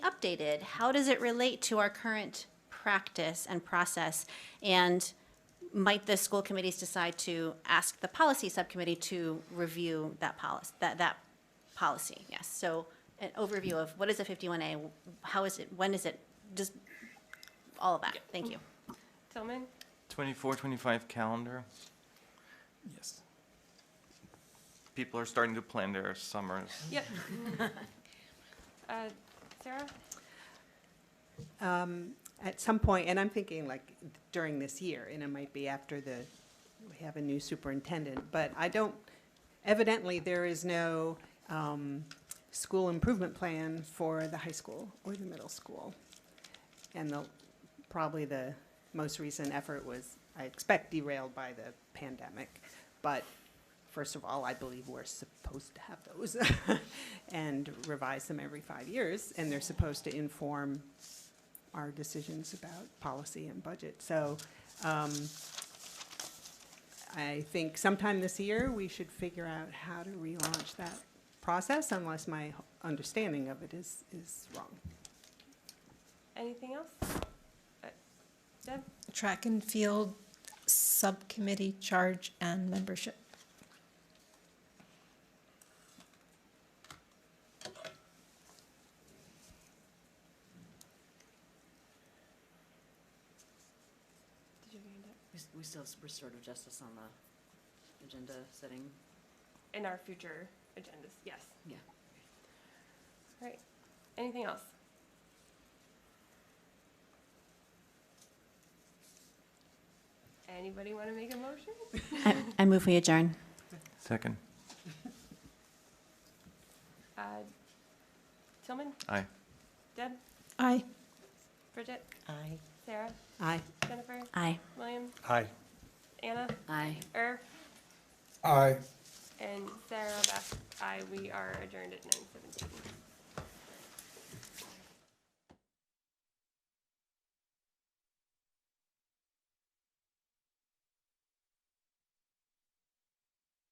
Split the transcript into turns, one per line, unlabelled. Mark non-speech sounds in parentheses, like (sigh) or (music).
updated, how does it relate to our current practice and process? And might the school committees decide to ask the policy subcommittee to review that policy, that, that policy? Yes, so an overview of what is a 51A, how is it, when is it, just all of that. Thank you.
Tillman?
24, 25 calendar.
Yes.
People are starting to plan their summers.
Yep. Uh, Sarah?
at some point, and I'm thinking like during this year, and it might be after the, we have a new superintendent, but I don't, evidently, there is no um, school improvement plan for the high school or the middle school. And the, probably the most recent effort was, I expect derailed by the pandemic. But first of all, I believe we're supposed to have those (laughs) and revise them every five years, and they're supposed to inform our decisions about policy and budget. So um, I think sometime this year, we should figure out how to relaunch that process unless my understanding of it is, is wrong.
Anything else? Uh, Deb?
Track and Field Subcommittee Charge and Membership.
Did you have your hand up?
We s- We still have restorative justice on the agenda setting.
In our future agendas, yes.
Yeah.
All right. Anything else? Anybody want to make a motion?
I, I move we adjourn.
Second.
Uh, Tillman?
Aye.
Deb?
Aye.
Bridget?
Aye.
Sarah?
Aye.
Jennifer?
Aye.
William?
Aye.
Anna?
Aye.
Er?
Aye.
And Sarah, Beth, I, we are adjourned at nine seventeen.